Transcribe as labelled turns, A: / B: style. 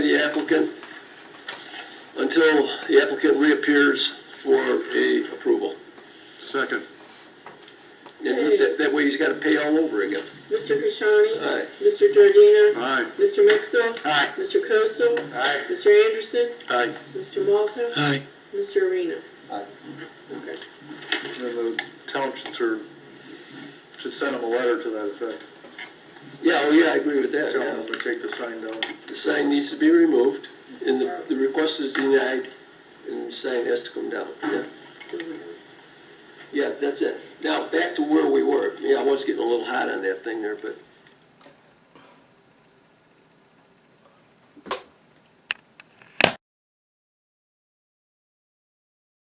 A: the applicant until the applicant reappears for a approval.
B: Second.
A: And that, that way he's gotta pay all over again.
C: Mr. Kashani?
A: Aye.
C: Mr. Giardina?
B: Aye.
C: Mr. Mixel?
A: Aye.
C: Mr. Kosel?
A: Aye.
C: Mr. Anderson?
A: Aye.
C: Mr. Malta?
D: Aye.
C: Mr. Arena?
E: Aye.
C: Okay.
B: And the townships are, should send them a letter to that effect.
A: Yeah, oh yeah, I agree with that,
B: Tell them
A: yeah.
B: to take the sign down.
A: The sign needs to be removed, and the, the request is denied, and the sign has to come down, yeah.
C: So we have-
A: Yeah, that's it. Now, back to where we were. Yeah, I was getting a little hot on that thing there, but